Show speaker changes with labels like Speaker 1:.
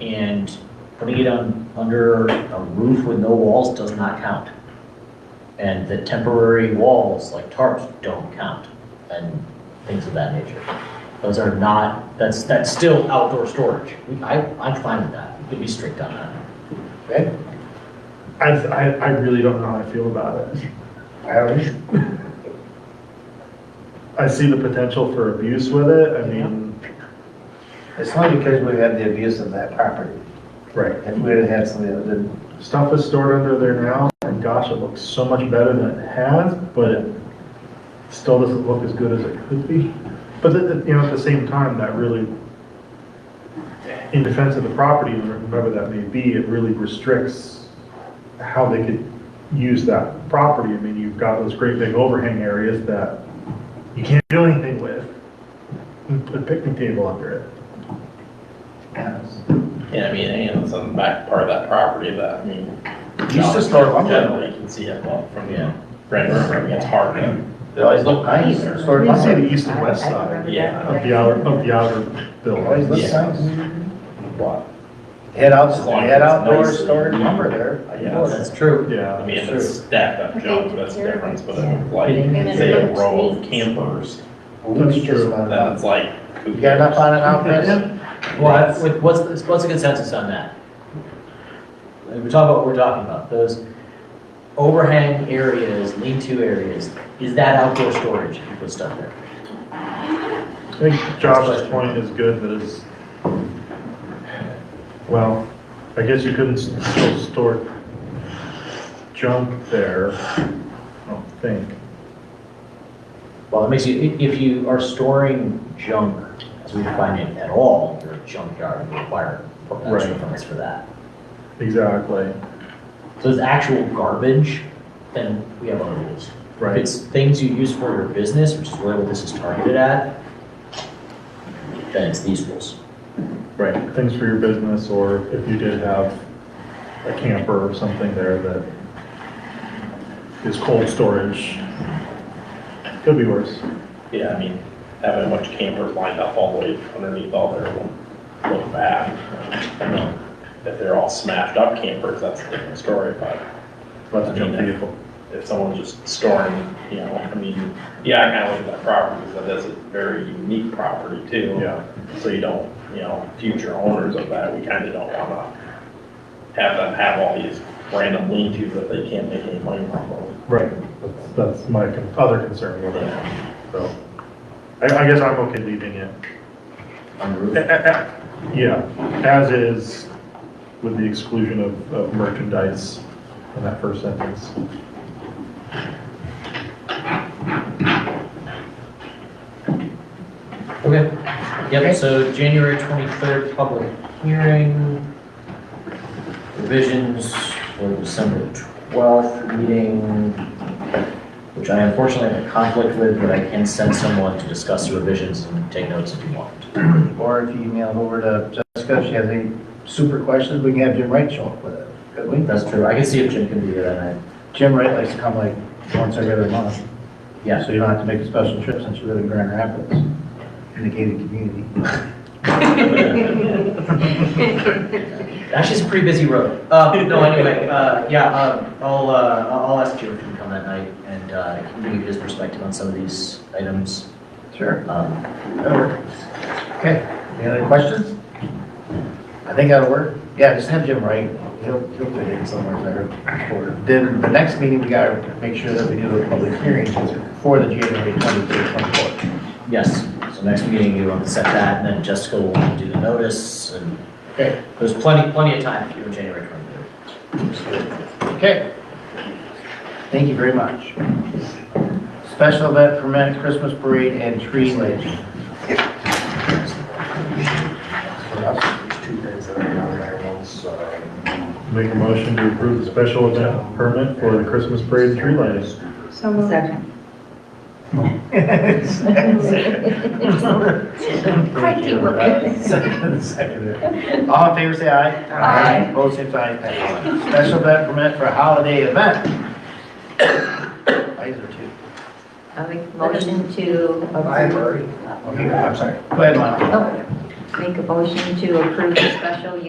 Speaker 1: And putting it on, under a roof with no walls does not count. And the temporary walls, like tarps, don't count, and things of that nature. Those are not, that's, that's still outdoor storage. We- I, I'm fine with that, we could be strict on that.
Speaker 2: I, I, I really don't know how I feel about it. I see the potential for abuse with it, I mean,
Speaker 3: It's not because we had the abuse of that property.
Speaker 2: right.
Speaker 3: If we had had something that didn't,
Speaker 2: Stuff is stored under there now, and gosh, it looks so much better than it has, but it still doesn't look as good as it could be. But at, the- you know, at the same time, that really, in defense of the property, owner, whoever that may be, it really restricts how they could use that property. I mean, you've got those great big overhang areas that you can't do anything with. And Put a picnic table under it.
Speaker 4: Yeah, I mean, and it's on the back part of that property that.
Speaker 3: Used to store lumber.
Speaker 4: Yeah, you can see it well from the Red River, I mean, it's hard to.
Speaker 3: it always looked nice. Stored
Speaker 2: I see
Speaker 3: lumber.
Speaker 2: the east and west
Speaker 5: I- I
Speaker 2: side
Speaker 5: remember
Speaker 4: yeah,
Speaker 5: that.
Speaker 2: of the outer, of the outer
Speaker 3: It Always
Speaker 2: building.
Speaker 3: looked
Speaker 4: Yeah.
Speaker 3: nice. Head out,
Speaker 4: As long as
Speaker 3: head
Speaker 4: it's
Speaker 3: outdoor
Speaker 4: nice.
Speaker 3: stored lumber there. I
Speaker 4: Yeah.
Speaker 3: know it.
Speaker 1: Oh, That's true.
Speaker 4: I
Speaker 2: Yeah,
Speaker 4: mean, if it's stacked up junk, that's the difference, but if it's like, say a row of campers,
Speaker 3: We
Speaker 2: That's
Speaker 3: just
Speaker 2: true.
Speaker 3: found
Speaker 4: then
Speaker 3: out.
Speaker 4: it's like.
Speaker 3: You got enough on it now, Chris?
Speaker 1: What, what- what's, the- what's the consensus on that? If we talk about what we're talking about, those overhang areas, lean-to areas, is that outdoor storage if you put stuff there?
Speaker 2: I think Josh's point is good, that is, well, I guess you couldn't s- still store junk there, I don't think.
Speaker 1: Well, it makes you, i- if you are storing junk, as we define it at all, you're a junkyard, and you require permits
Speaker 2: Right.
Speaker 1: permits for that.
Speaker 2: Exactly,
Speaker 1: So it's actual garbage, then we have our rules. If
Speaker 2: right.
Speaker 1: it's things you use for your business, which is really what this is targeted at, then it's these rules.
Speaker 2: Right, things for your business, or if you did have a camper or something there that is cold storage, could be worse.
Speaker 4: Yeah, I mean, having a bunch of campers lined up all the way underneath all their will look bad. I mean, If they're all smashed up campers, that's a different story, but
Speaker 2: Lots of junk vehicle.
Speaker 4: if someone's just storing, you know, I mean, yeah, I kind of look at that property, because that's a very unique property too.
Speaker 2: Yeah,
Speaker 4: So you don't, you know, future owners of that, we kind of don't want to have them have all these random lean-tos that they can't make any money off of.
Speaker 2: right, that's, that's my con- other concern with it, so. I, I guess I'm okay leaving it.
Speaker 1: On the
Speaker 2: Eh,
Speaker 1: roof.
Speaker 2: eh, eh, Yeah, as is with the exclusion of, of merchandise in that first sentence.
Speaker 1: Okay.
Speaker 3: Okay.
Speaker 1: Yep, so January 23rd, public hearing. Revisions for December 12th meeting, which I unfortunately have a conflict with, but I can send someone to discuss the revisions and take notes if you want.
Speaker 3: Or if you email it over to Jessica, if she has any super questions, we can have Jim Wright show up with it, could we?
Speaker 1: That's true. I can see if Jim can be there that night.
Speaker 3: Jim Wright likes to come like once every other month.
Speaker 1: Yeah.
Speaker 3: So you don't have to make a special trip since you live in Grand Rapids, in the gated community.
Speaker 1: Actually, it's a pretty busy road. Uh, no, anyway, uh, yeah, uh, I'll, uh, I'll ask Jim if he can come that night and, uh, he can give his perspective on some of these items.
Speaker 3: Sure.
Speaker 1: Um,
Speaker 3: That'll work. Okay, any other questions? I think that'll work. Yeah, just have Jim Wright. He'll, he'll fit in somewhere there. Or- Then the next meeting, we gotta make sure that we do a public hearing for the January twenty-third, twenty-fourth.
Speaker 1: yes, so next meeting you want to set that and then Jessica will do the notice and
Speaker 3: Okay,
Speaker 1: there's plenty, plenty of time here in January twenty-third.
Speaker 3: okay. Thank you very much. Special event permit, Christmas parade and tree lighting.
Speaker 2: Make a motion to approve the special event permit for the Christmas parade tree lighting.
Speaker 5: So moved.
Speaker 3: Crikey,
Speaker 5: look at this.
Speaker 3: Second, second. All in favor, say aye.
Speaker 5: Aye.
Speaker 3: Opposed, same sign, passes. Special event permit for a holiday event. Eyes are two.
Speaker 5: I make a motion to approve,
Speaker 3: Okay, I'm sorry. Go ahead, Lana.
Speaker 5: oh, make a motion to approve the special use